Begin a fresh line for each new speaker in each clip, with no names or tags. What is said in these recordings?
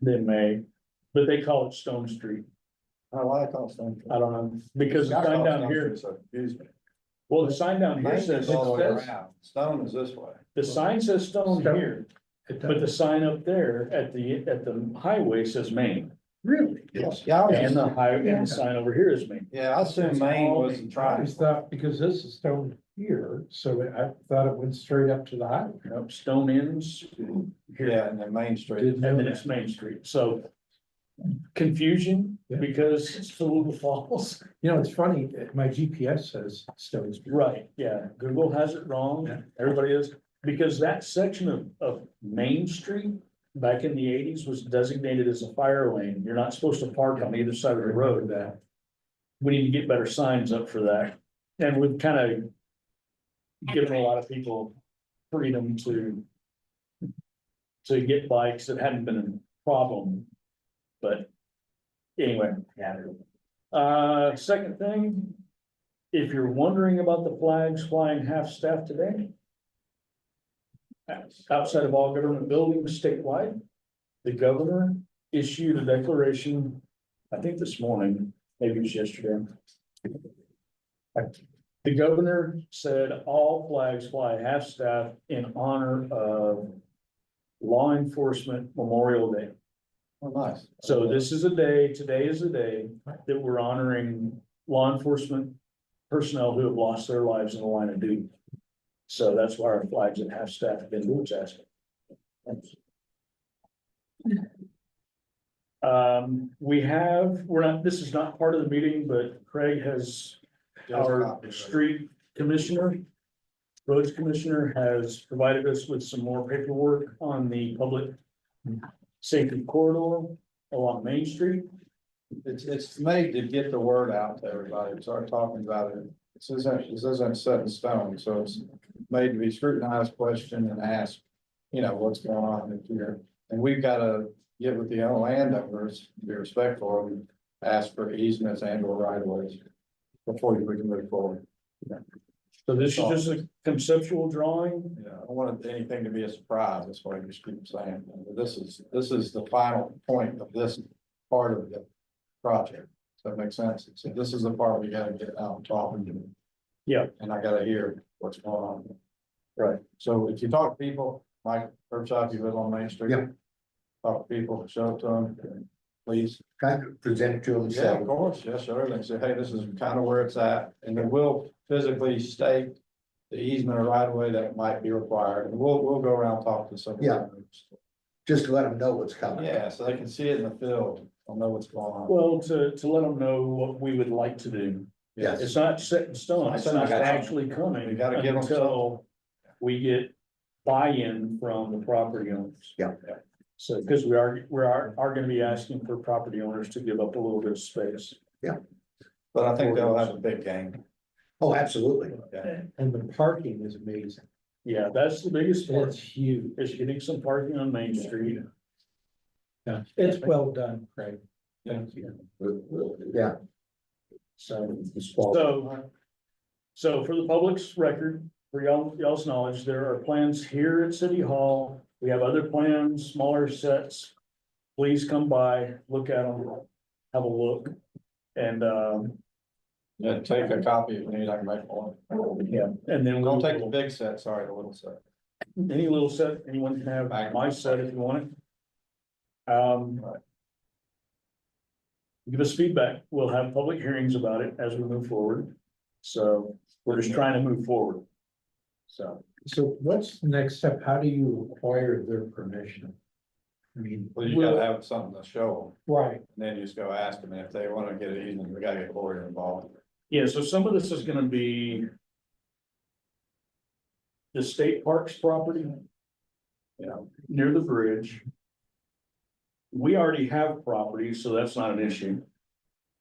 than May, but they call it Stone Street.
I like all stuff.
I don't know, because the sign down here, well, the sign down here
Main
says,
is all the way
says-
around, stone is this way.
the sign says Stone here, but the sign up there at the, at the highway says Main. Really? Yes.
Yeah, I was
And
just-
the high, and the sign over here is Main.
yeah, I assume Maine was the
I
triangle.
thought, because this is stone here, so I thought it went straight up to the highway.
Nope, Stone Inns,
Yeah, and then Main Street.
Didn't
and
know
then it's Main Street, so. Confusion,
Yeah.
because it's Little Falls.
You know, it's funny, eh, my GPS says Stone Street.
Right, yeah, Google has it wrong, everybody is, because that section of, of Main Street. Back in the eighties was designated as a fire lane, you're not supposed to park on either side of the road.
that.
We need to get better signs up for that, and we've kind of. Given a lot of people freedom to. To get bikes that hadn't been a problem, but anyway. Uh, second thing, if you're wondering about the flags flying half-staff today. Outside of all government buildings statewide, the governor issued a declaration, I think this morning, maybe it was yesterday. The governor said all flags fly half-staff in honor of Law Enforcement Memorial Day.
Well, Oh, nice.
So this is a day, today is a day that we're honoring law enforcement personnel who have lost their lives in the line of duty. So that's why our flags and half staff have been blue jasmine. Um, we have, we're not, this is not part of the meeting, but Craig has, our street commissioner, roads commissioner has provided us with some more paperwork on the public safety corridor along Main Street.
It's, it's made to get the word out to everybody, start talking about it. This isn't, this isn't set in stone, so it's made to be scrutinized, questioned and asked, you know, what's going on in here. And we've got to get with the landowners, be respectful and ask for easements and or right of ways before we can move forward.
So this is just a conceptual drawing.
Yeah, I don't want anything to be a surprise, that's why I just keep saying, this is, this is the final point of this part of the project. Does that make sense? So this is the part we gotta get out and talking to.
Yeah.
And I gotta hear what's going on.
Right.
So if you talk to people, Mike, first off, you live on Main Street.
Yeah.
Talk to people, show it to them, please.
kind of present it to
Yeah, of
himself.
course, yes, sir, and say, hey, this is kind of where it's at, and then we'll physically state the easement or right of way that might be required, and we'll, we'll go around and talk to some. of the
Yeah.
owners.
Just let him know what's coming.
Yeah, so they can see it in the field, they'll know what's going on.
Well, to, to let them know what we would like to do.
Yes.
It's not set in stone. It's not actually coming.
We gotta give 'em something.
until We get buy-in from the property owners.
Yeah.
So, because we are, we are, are gonna be asking for property owners to give up a little bit of space.
But I think they'll have a big game.
Oh, absolutely.
And the parking is amazing.
Yeah, that's the biggest part,
It's huge.
is getting some parking on Main Street.
Yeah, It's well done, Craig. Thank you.
Yeah.
So.
It's fall.
So, so for the public's record, for y'all, y'all's knowledge, there are plans here at City Hall. We have other plans, smaller sets. Please come by, look at them, have a look. And, um,
Yeah, take a copy if you need, I can make one.
yeah, and then. we
Don't take the
will-
big set, sorry, the little set.
Any little set, anyone can have my set if you want it. Um. Give us feedback. We'll have public hearings about it as we move forward. So we're just trying to move forward. So
So what's the next step? How do you acquire their permission? I mean,
Well, you gotta have something to show
right,
them, and then you just go ask them, and if they wanna get it easement, we gotta get Lori involved.
Yeah, so some of this is gonna be. The state parks property. You know, near the bridge. We already have property, so that's not an issue.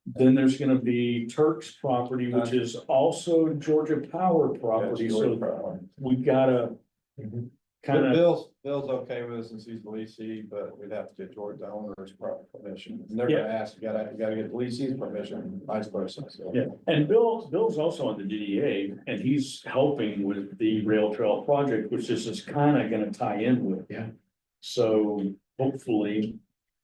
Then there's gonna be Turk's property, which is also Georgia Power property,
That's Lori's
so
problem.
we gotta.
Mhm.
But
Kinda,
Bill's, Bill's okay with us since he's the leasing, but we'd have to get George the owner's pro- permission. And they're gonna ask, you gotta, you gotta get the leasee's permission, vice versa, so.
yeah, and Bill, Bill's also on the DDA, and he's helping with the rail trail project, which this is kinda gonna tie in with.
Yeah.
So hopefully,